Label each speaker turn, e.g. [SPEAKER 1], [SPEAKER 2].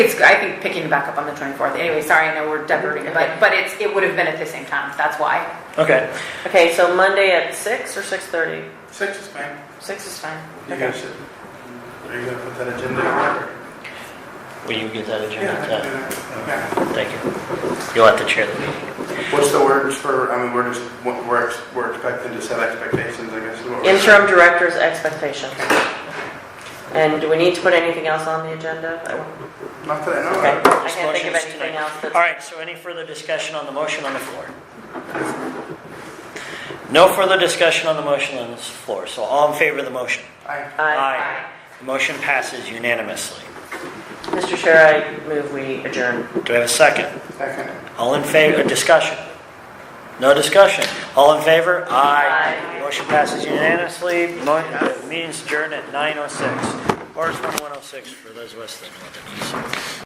[SPEAKER 1] It's, I think, picking back up on the 24th. Anyway, sorry, I know we're diverting, but, but it's, it would have been at the same time. That's why.
[SPEAKER 2] Okay,
[SPEAKER 3] Okay, so Monday at six or six thirty?
[SPEAKER 4] Six is fine.
[SPEAKER 3] Six is fine.
[SPEAKER 4] You guys should, are you gonna put that agenda? in?
[SPEAKER 2] will you get that
[SPEAKER 4] Yeah, I can
[SPEAKER 2] agenda?
[SPEAKER 4] do that. Okay.
[SPEAKER 2] Uh, Thank you. You'll have to chair the meeting.
[SPEAKER 4] What's the words for, I mean, we're just, we're, ex- we're expecting to set expectations, I guess. is what we're-
[SPEAKER 3] Interim director's expectations. And do we need to put anything else on the agenda? I don't-
[SPEAKER 4] Not that I know
[SPEAKER 3] Okay,
[SPEAKER 4] of.
[SPEAKER 3] I can't think of
[SPEAKER 2] Motion's
[SPEAKER 3] anything
[SPEAKER 2] taken.
[SPEAKER 3] else that's.
[SPEAKER 2] All right, so any further discussion on the motion on the floor? No further discussion on the motion on this floor, so all in favor of the motion?
[SPEAKER 4] I,
[SPEAKER 3] Aye.
[SPEAKER 2] The motion passes unanimously.
[SPEAKER 3] Mr. Chair, I move we adjourn.
[SPEAKER 2] Do I have a second?
[SPEAKER 4] second.
[SPEAKER 2] All in favor, discussion? No discussion? All in favor? Aye.
[SPEAKER 3] Aye.
[SPEAKER 2] Motion passes unanimously. Mo- oh uh, Meeting's adjourned at 9:06. Or it's 1:06 for those of us that know what that means.